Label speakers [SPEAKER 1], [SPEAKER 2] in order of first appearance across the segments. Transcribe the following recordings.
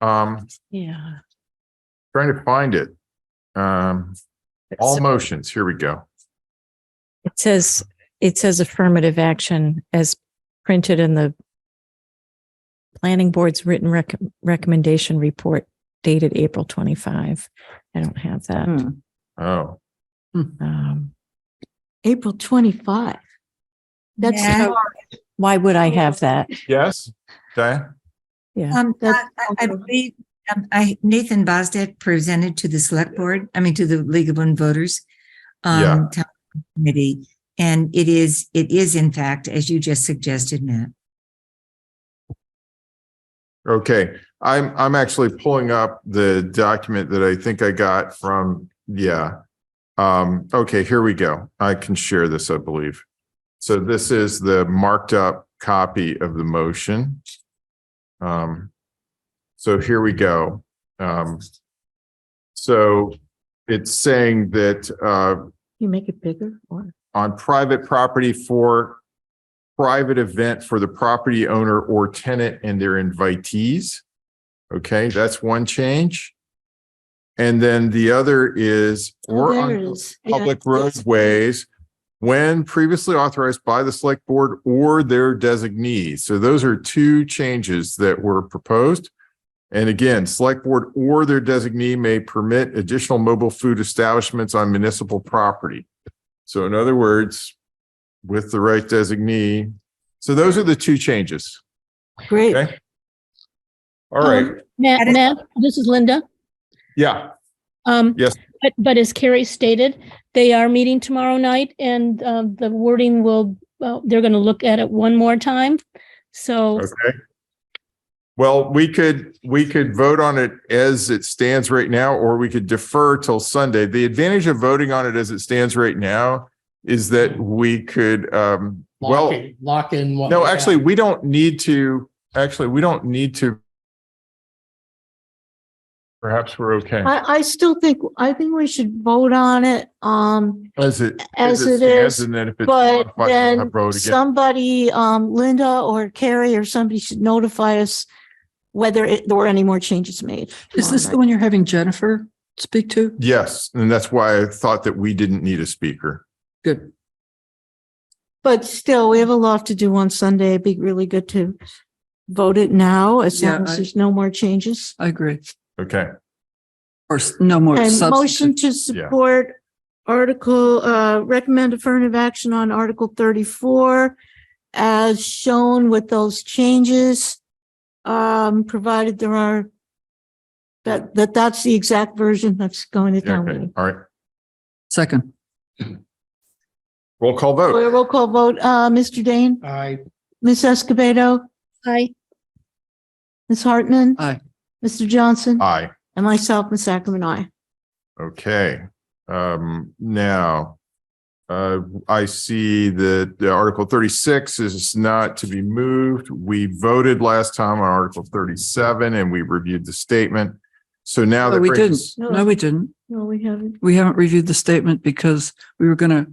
[SPEAKER 1] Um,
[SPEAKER 2] Yeah.
[SPEAKER 1] trying to find it. Um, all motions, here we go.
[SPEAKER 2] It says, it says affirmative action as printed in the planning board's written rec- recommendation report dated April 25. I don't have that.
[SPEAKER 3] Hmm.
[SPEAKER 1] Oh,
[SPEAKER 2] Um,
[SPEAKER 3] April twenty-five. That's,
[SPEAKER 4] Yeah.
[SPEAKER 3] so-
[SPEAKER 2] why would I have that?
[SPEAKER 1] yes, Diane?
[SPEAKER 2] Yeah.
[SPEAKER 4] Um, I,
[SPEAKER 3] That's-
[SPEAKER 4] I- I believe, um, I, Nathan Bosdet presented to the select board, I mean, to the League of Women Voters.
[SPEAKER 1] Yeah.
[SPEAKER 4] Um, town committee, and it is, it is in fact, as you just suggested, Matt.
[SPEAKER 1] Okay, I'm, I'm actually pulling up the document that I think I got from, yeah. Um, okay, here we go. I can share this, I believe. So this is the marked up copy of the motion. Um, so here we go. Um, so it's saying that, uh,
[SPEAKER 3] you make it bigger or?
[SPEAKER 1] on private property for private event for the property owner or tenant and their invitees. Okay, that's one change. And then the other is or
[SPEAKER 3] There it
[SPEAKER 1] on
[SPEAKER 3] is. Yeah,
[SPEAKER 1] public
[SPEAKER 3] yes.
[SPEAKER 1] roadways when previously authorized by the select board or their designee. So those are two changes that were proposed. And again, select board or their designee may permit additional mobile food establishments on municipal property. So in other words, with the right designee. So those are the two changes.
[SPEAKER 3] Great.
[SPEAKER 1] Okay. All right.
[SPEAKER 5] Oh.
[SPEAKER 6] Matt,
[SPEAKER 4] Edit-
[SPEAKER 6] Matt, this is Linda.
[SPEAKER 1] Yeah.
[SPEAKER 6] Um,
[SPEAKER 1] Yes.
[SPEAKER 6] But, but as Carrie stated, they are meeting tomorrow night and uh, the wording will, well, they're going to look at it one more time. So,
[SPEAKER 1] Okay. Well, we could, we could vote on it as it stands right now, or we could defer till Sunday. The advantage of voting on it as it stands right now is that we could, um, well,
[SPEAKER 5] Lock in- Lock in. what
[SPEAKER 1] no,
[SPEAKER 5] we have.
[SPEAKER 1] actually, we don't need to, actually, we don't need to. Perhaps we're okay.
[SPEAKER 3] I, I still think, I think we should vote on it, um,
[SPEAKER 1] As it.
[SPEAKER 3] as it
[SPEAKER 1] stands,
[SPEAKER 3] is.
[SPEAKER 1] And then if it's.
[SPEAKER 3] But
[SPEAKER 1] modified, we'll
[SPEAKER 3] then
[SPEAKER 1] have vote again.
[SPEAKER 3] somebody, um, Linda or Carrie or somebody should notify us whether it, there were any more changes made.
[SPEAKER 7] Is this the
[SPEAKER 3] tomorrow
[SPEAKER 7] one you're having Jennifer speak to?
[SPEAKER 1] Yes, and that's why I thought that we didn't need a speaker.
[SPEAKER 7] Good.
[SPEAKER 3] night. But still, we have a lot to do on Sunday. It'd be really good to vote it now as
[SPEAKER 7] Yeah,
[SPEAKER 3] long as
[SPEAKER 7] I-
[SPEAKER 3] there's no more changes.
[SPEAKER 7] I agree.
[SPEAKER 1] Okay,
[SPEAKER 7] Or s- no more
[SPEAKER 3] And motion
[SPEAKER 7] substantive.
[SPEAKER 3] to
[SPEAKER 1] Yeah.
[SPEAKER 3] support article, uh, recommend affirmative action on article thirty-four as shown with those changes, um, provided there are that, that that's the exact version that's going to
[SPEAKER 1] Yeah,
[SPEAKER 3] town
[SPEAKER 1] okay,
[SPEAKER 3] meeting.
[SPEAKER 1] all right.
[SPEAKER 7] Second,
[SPEAKER 1] Roll call vote.
[SPEAKER 3] Roll call vote, uh, Mr. Dane,
[SPEAKER 5] I,
[SPEAKER 3] Ms. Escobedo,
[SPEAKER 6] I,
[SPEAKER 3] Ms. Hartman.
[SPEAKER 7] Aye.
[SPEAKER 3] Mr. Johnson
[SPEAKER 1] Aye.
[SPEAKER 3] and myself, Ms. Ackerman, I.
[SPEAKER 1] Okay, um, now, uh, I see that the Article thirty-six is not to be moved. We voted last time on Article thirty-seven and we reviewed the statement. So now
[SPEAKER 7] but
[SPEAKER 1] that
[SPEAKER 7] we
[SPEAKER 1] brings
[SPEAKER 7] didn't.
[SPEAKER 1] us-
[SPEAKER 7] No, we didn't.
[SPEAKER 3] No, we haven't.
[SPEAKER 7] We haven't reviewed the statement because we were going to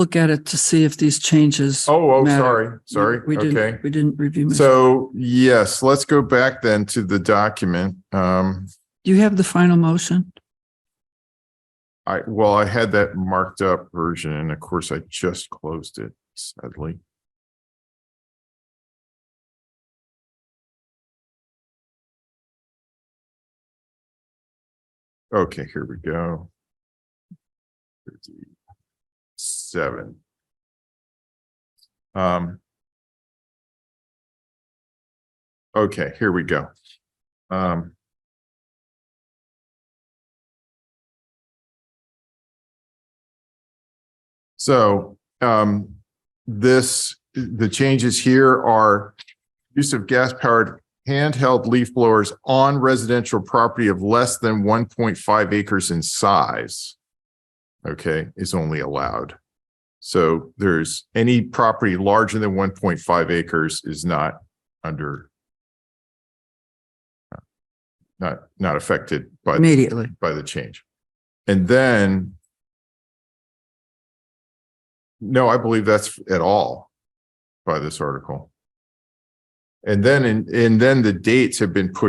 [SPEAKER 7] look at it to see if these changes.
[SPEAKER 1] Oh, oh,
[SPEAKER 7] matter.
[SPEAKER 1] sorry, sorry,
[SPEAKER 7] We didn't-
[SPEAKER 1] okay.
[SPEAKER 7] We didn't review.
[SPEAKER 1] So, yes, let's go back then to the document. Um,
[SPEAKER 7] Do you have the final motion?
[SPEAKER 1] I, well, I had that marked up version and of course I just closed it sadly. Okay, here we go. Seven. Um. Okay, here we go. Um. So um, this, the changes here are use of gas powered handheld leaf blowers on residential property of less than one point five acres in size. Okay, is only allowed. So there's any property larger than one point five acres is not under uh, not, not affected by
[SPEAKER 7] Immediately.
[SPEAKER 1] by the change. And then no, I believe that's at all by this article. And then, and, and then the dates have been pushed